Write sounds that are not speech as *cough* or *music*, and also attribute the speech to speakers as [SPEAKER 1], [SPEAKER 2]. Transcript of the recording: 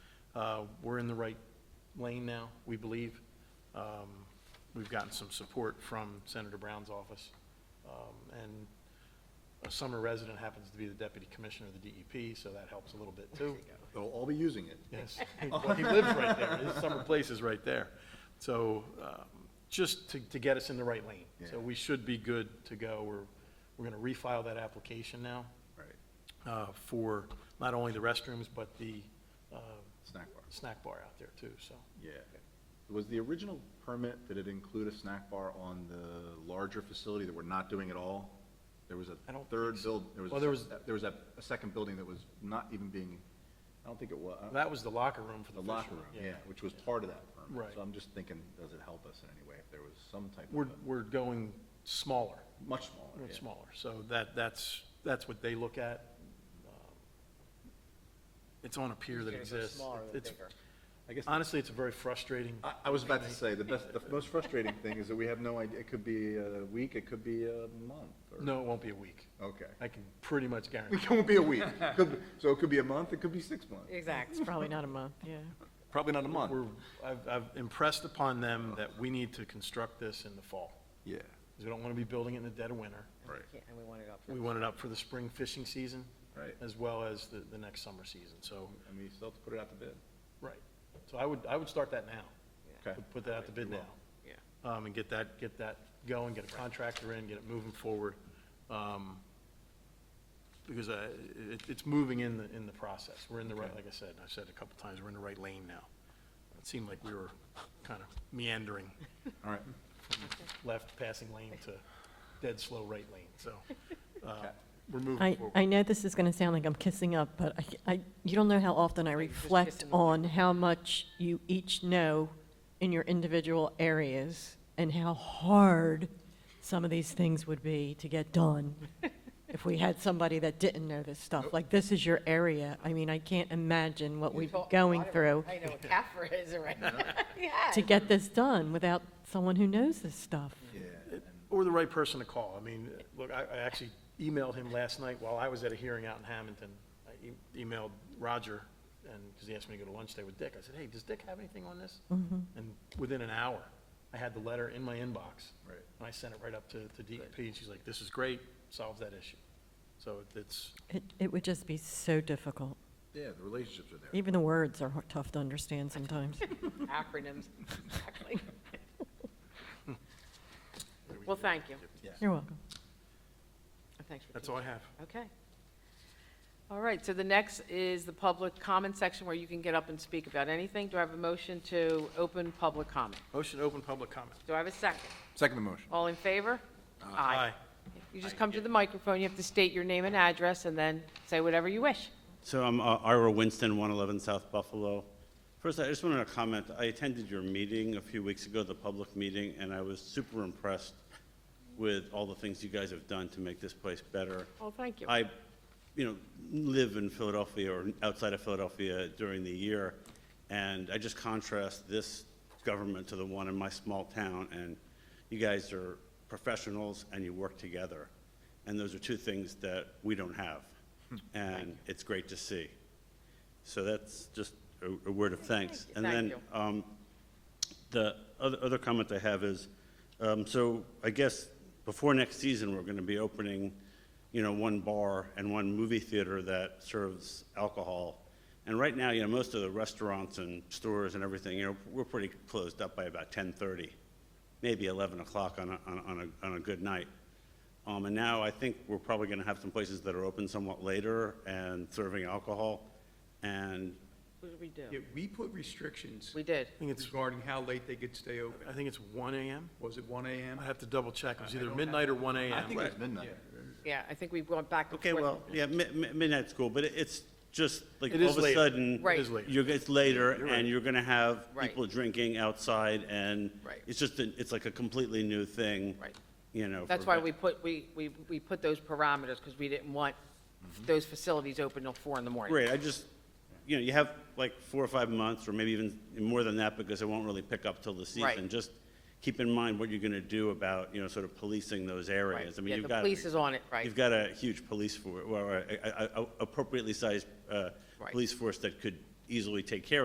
[SPEAKER 1] Uh, We're in the right lane now, we believe. Um, We've gotten some support from Senator Brown's office. Um, And a summer resident happens to be the deputy commissioner of the DEP, so that helps a little bit too.
[SPEAKER 2] They'll all be using it.
[SPEAKER 1] Yes, *laughs* Well, he lives right there, his summer place is right there. So, um, just to, to get us in the right lane. So
[SPEAKER 2] Yeah.
[SPEAKER 1] we should be good to go, we're, we're gonna refile that application now,
[SPEAKER 2] Right,
[SPEAKER 1] uh, for not only the restrooms, but the, uh,
[SPEAKER 2] snack bar,
[SPEAKER 1] snack bar out there too, so.
[SPEAKER 2] yeah. Was the original permit, did it include a snack bar on the larger facility that we're not doing at all? There was a
[SPEAKER 1] I don't
[SPEAKER 2] third
[SPEAKER 1] think so.
[SPEAKER 2] build, there was,
[SPEAKER 1] Well, there was-
[SPEAKER 2] a- there was a, a second building that was not even being, I don't think it was,
[SPEAKER 1] That was the locker room for
[SPEAKER 2] the
[SPEAKER 1] the
[SPEAKER 2] locker
[SPEAKER 1] fishermen,
[SPEAKER 2] room, yeah, which was part of that permit.
[SPEAKER 1] Right.
[SPEAKER 2] So I'm just thinking, does it help us in any way if there was some type of,
[SPEAKER 1] We're,
[SPEAKER 2] a-
[SPEAKER 1] we're going smaller,
[SPEAKER 2] much smaller,
[SPEAKER 1] we're
[SPEAKER 2] yeah.
[SPEAKER 1] smaller, so that, that's, that's what they look at. Um, It's on a pier that exists. It's-
[SPEAKER 2] I guess,
[SPEAKER 1] Honestly, it's very frustrating.
[SPEAKER 2] I, I was about to say, the best, the most frustrating thing is that we have no idea, it could be a week, it could be a month, or.
[SPEAKER 1] No, it won't be a week.
[SPEAKER 2] Okay.
[SPEAKER 1] I can pretty much guarantee.
[SPEAKER 2] *laughs* It won't be a week. Could, be- so it could be a month, it could be six months.
[SPEAKER 3] Exact.
[SPEAKER 4] It's probably not a month, yeah.
[SPEAKER 2] Probably not a
[SPEAKER 1] We're, I've, I've impressed upon them that we need to construct this in the fall.
[SPEAKER 2] Yeah,
[SPEAKER 1] Because we don't want to be building it in the dead of winter.
[SPEAKER 2] right,
[SPEAKER 3] And we want it up.
[SPEAKER 1] We want it up for the spring fishing season
[SPEAKER 2] right.
[SPEAKER 1] as well as the, the next summer season, so,
[SPEAKER 2] I mean, you still have to put it out to bid.
[SPEAKER 1] right. So I would, I would start that now.
[SPEAKER 2] Okay.
[SPEAKER 1] Put- Put that out to bid now.
[SPEAKER 3] Yeah.
[SPEAKER 1] Um, and get that, get that going, get a contractor in, get it moving forward. Um, because I, it, it's moving in the, in the process. We're in the right, like I said, I've said a couple times, we're in the right lane now. It seemed like we were kind of meandering
[SPEAKER 2] All right.
[SPEAKER 1] left passing lane to dead slow right lane,
[SPEAKER 2] *laughs*
[SPEAKER 1] so, uh, we're moving
[SPEAKER 4] I,
[SPEAKER 1] forward.
[SPEAKER 4] I know this is going to sound like I'm kissing up, but I, I, you don't know how often I
[SPEAKER 3] you're just
[SPEAKER 4] reflect
[SPEAKER 3] kissing the
[SPEAKER 4] on how much you each know in your individual areas and how hard some of these things would be to get done if we had somebody that didn't know this stuff. Like, this is your area. I mean, I can't imagine what we've been going through
[SPEAKER 3] I know what CAFRA is already. *laughs* Yeah.
[SPEAKER 4] to get this done without someone who knows this stuff.
[SPEAKER 2] Yeah.
[SPEAKER 1] Or the right person to call. I mean, look, I, I actually emailed him last night while I was at a hearing out in Hamilton. I e- emailed Roger, and, because he asked me to go to lunch today with Dick. I said, hey, does Dick have anything on this? And within an hour, I had the letter in my inbox.
[SPEAKER 2] Right.
[SPEAKER 1] And I sent it right up to, to DEP, and she's like, this is great, solves that issue. So it's,
[SPEAKER 4] It, it would just be so difficult.
[SPEAKER 2] Yeah, the relationships are there.
[SPEAKER 4] Even the words are hard- tough to understand
[SPEAKER 3] *laughs*
[SPEAKER 4] sometimes.
[SPEAKER 3] Acronyms, exactly. Well, thank you.
[SPEAKER 4] You're welcome.
[SPEAKER 3] And Thanks for
[SPEAKER 1] that's all I have.
[SPEAKER 3] teaching. Okay. All right, so the next is the public comment section where you can get up and speak about anything. Do I have a motion to open public comment?
[SPEAKER 1] Motion to open public comment.
[SPEAKER 3] Do I have a second?
[SPEAKER 2] Second the motion.
[SPEAKER 3] All in favor? You just come to the microphone, you have to state your name and address, and then say whatever you wish.
[SPEAKER 5] So I'm uh, Ira Winston, 111 South Buffalo. First, I just wanted to comment, I attended your meeting a few weeks ago, the public meeting, and I was super impressed with all the things you guys have done to make this place better.
[SPEAKER 3] Well, Oh, thank you.
[SPEAKER 5] I, you know, live in Philadelphia or outside of Philadelphia during the year, and I just contrast this government to the one in my small town, and you guys are professionals and you work together. And those are two things that we don't have, and it's great to see. So that's just a- a word of thanks.
[SPEAKER 3] Thank you.
[SPEAKER 5] And
[SPEAKER 3] Thank
[SPEAKER 5] then,
[SPEAKER 3] you.
[SPEAKER 5] um, the other, other comment I have is, um, so I guess before next season, we're gonna be opening, you know, one bar and one movie theater that serves alcohol. And right now, you know, most of the restaurants and stores and everything, you know, we're pretty closed up by about ten-thirty, maybe eleven o'clock on a, on a- on a, on a good night. Um, and now I think we're probably gonna have some places that are open somewhat later and serving alcohol. And
[SPEAKER 3] What did we
[SPEAKER 6] Yeah,
[SPEAKER 3] do?
[SPEAKER 6] we put restrictions
[SPEAKER 3] We did.
[SPEAKER 1] I think it's,
[SPEAKER 6] regarding how late they could stay open.
[SPEAKER 1] I think it's one AM?
[SPEAKER 6] Was it one AM?
[SPEAKER 1] I have to double check. It was either
[SPEAKER 6] don't have-
[SPEAKER 1] midnight or one AM.
[SPEAKER 6] I think
[SPEAKER 2] It's midnight.
[SPEAKER 3] Yeah, I think we went back and
[SPEAKER 5] Okay,
[SPEAKER 3] forth.
[SPEAKER 5] well, yeah, mi- mi- midnight's cool, but it- it's just, like,
[SPEAKER 1] It
[SPEAKER 5] all
[SPEAKER 1] is
[SPEAKER 5] of a
[SPEAKER 1] later.
[SPEAKER 5] sudden.
[SPEAKER 3] Right.
[SPEAKER 1] It is later.
[SPEAKER 5] You're, it's later, and you're gonna have
[SPEAKER 3] Right.
[SPEAKER 5] people drinking outside, and.
[SPEAKER 3] Right.
[SPEAKER 5] It's just, a- it's like a completely new thing.
[SPEAKER 3] Right.
[SPEAKER 5] You know.
[SPEAKER 3] That's
[SPEAKER 5] for
[SPEAKER 3] why
[SPEAKER 5] ve-
[SPEAKER 3] we put, we, we, we put those parameters, because we didn't want
[SPEAKER 5] Mm-hmm.
[SPEAKER 3] those facilities open till four in the morning.
[SPEAKER 5] Great, I just, you know, you have like four or five months, or maybe even more than that, because it won't really pick up till the
[SPEAKER 3] Right.
[SPEAKER 5] season. Just keep in mind what you're gonna do about, you know, sort of policing those
[SPEAKER 3] Right.
[SPEAKER 5] areas. I mean,
[SPEAKER 3] Yeah,
[SPEAKER 5] you've
[SPEAKER 3] the
[SPEAKER 5] got-
[SPEAKER 3] police is on it, right.
[SPEAKER 5] You've got a huge police force, or a- a- a- appropriately sized uh,
[SPEAKER 3] Right.
[SPEAKER 5] police force that could easily take care